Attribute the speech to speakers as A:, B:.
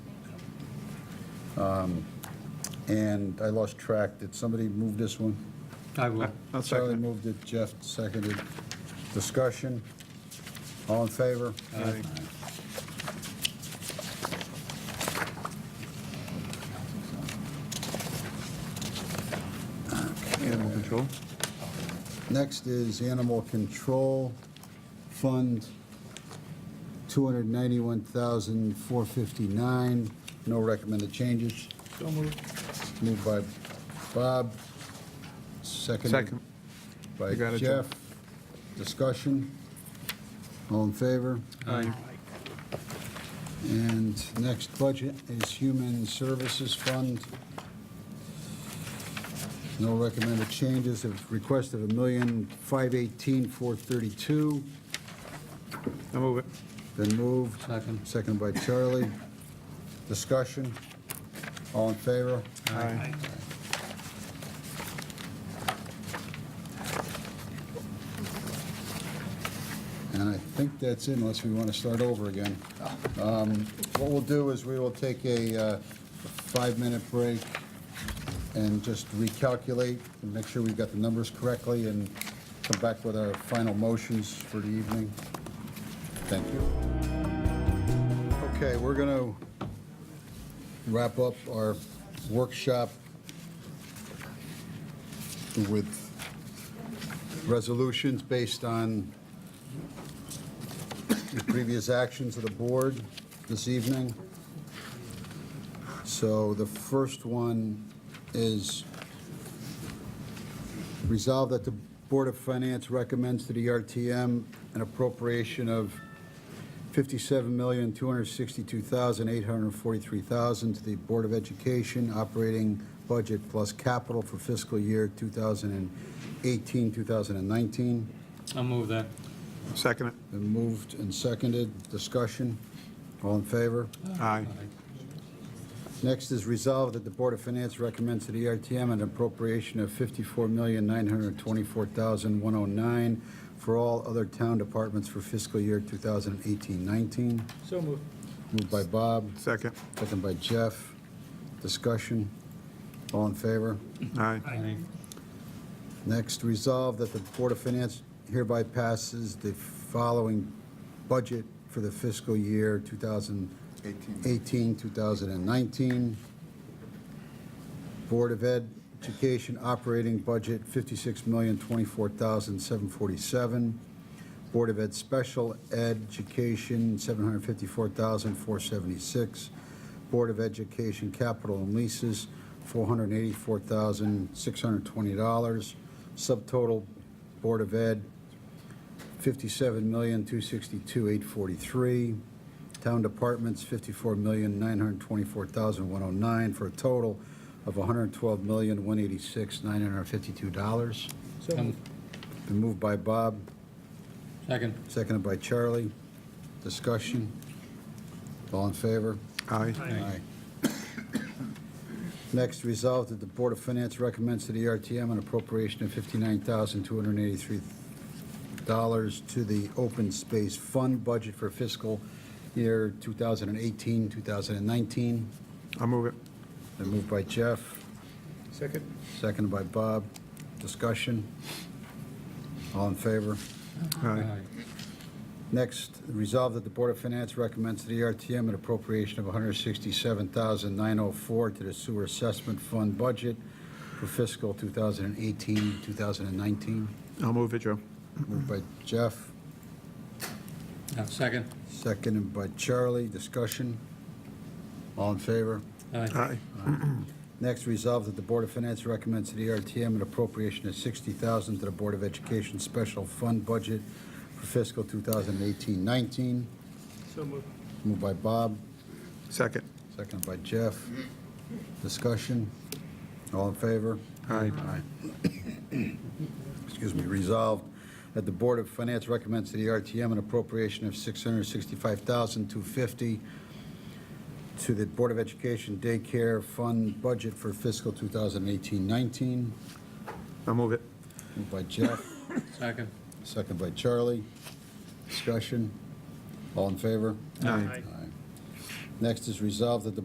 A: Um, And I lost track. Did somebody move this one?
B: I will.
C: I'll
A: Charlie
C: second
A: moved it, Jeff seconded. Discussion? All in favor?
B: uh,
C: Aye. it. Animal control.
A: Next is Animal Control Fund, 291459 No recommended changes.
C: So moved.
A: Moved by Bob, seconded
C: Second.
A: by
C: You got it,
A: Jeff. Discussion? All in favor?
B: Aye.
A: And next budget is Human Services Fund. No recommended changes, a request of a million, five eighteen, four thirty-two,
C: I'll move it.
A: been moved.
B: Second.
A: Second by Charlie. Discussion? All in favor?
C: Aye.
A: And I think that's it, unless we want to start over again. Um, What we'll do is we will take a uh, five-minute break and just recalculate and make sure we've got the numbers correctly and come back with our final motions for the evening. Thank you. Okay, we're going to wrap up our workshop with resolutions based on the previous actions of the board this evening. So the first one is resolve that the Board of Finance recommends to the RTM an appropriation of $57,262,843,000 to the Board of Education operating budget plus capital for fiscal year 2018, 2019.
B: I'll move that.
C: Second it.
A: Been moved and seconded. Discussion? All in favor?
C: Aye.
A: Next is resolved that the Board of Finance recommends to the RTM an appropriation of $54,924,109 for all other town departments for fiscal year 2018-19.
B: So moved.
A: Moved by Bob,
C: Second.
A: seconded by Jeff. Discussion? All in favor?
C: Aye.
B: Aye.
A: Next, resolve that the Board of Finance hereby passes the following budget for the fiscal year 2018, 2019. Board of Ed Education operating budget, $56,024,747. Board of Ed Special Education, $754,476. Board of Education Capital and Leases, $484,620. Subtotal Board of Ed, $57,262,843. Town departments, $54,924,109, for a total of $112,186,952.
B: So moved.
A: Been moved by Bob,
B: Second.
A: seconded by Charlie. Discussion? All in favor?
C: Aye.
A: Next, resolved that the Board of Finance recommends to the RTM an appropriation of $59,283 to the Open Space Fund budget for fiscal year 2018, 2019.
C: I'll move it.
A: Been moved by Jeff,
C: Second.
A: seconded by Bob. Discussion? All in favor?
C: Aye.
A: Next, resolve that the Board of Finance recommends to the RTM an appropriation of $167,904 to the Sewer Assessment Fund budget for fiscal 2018, 2019.
C: I'll move it, Joe.
A: Moved by Jeff,
B: Uh, Second.
A: seconded by Charlie. Discussion? All in favor?
B: Aye.
C: Aye.
A: Next, resolve that the Board of Finance recommends to the RTM an appropriation of $60,000 to the Board of Education Special Fund budget for fiscal 2018-19.
B: So moved.
A: Moved by Bob,
C: Second.
A: Second by Jeff. Discussion? All in favor?
C: Aye.
A: Excuse me, resolved that the Board of Finance recommends to the RTM an appropriation of $665,250 to the Board of Education Daycare Fund budget for fiscal 2018-19.
C: I'll move it.
A: Moved by Jeff,
B: Second.
A: second by Charlie. Discussion? All in favor?
C: Aye.
A: Next is resolved that the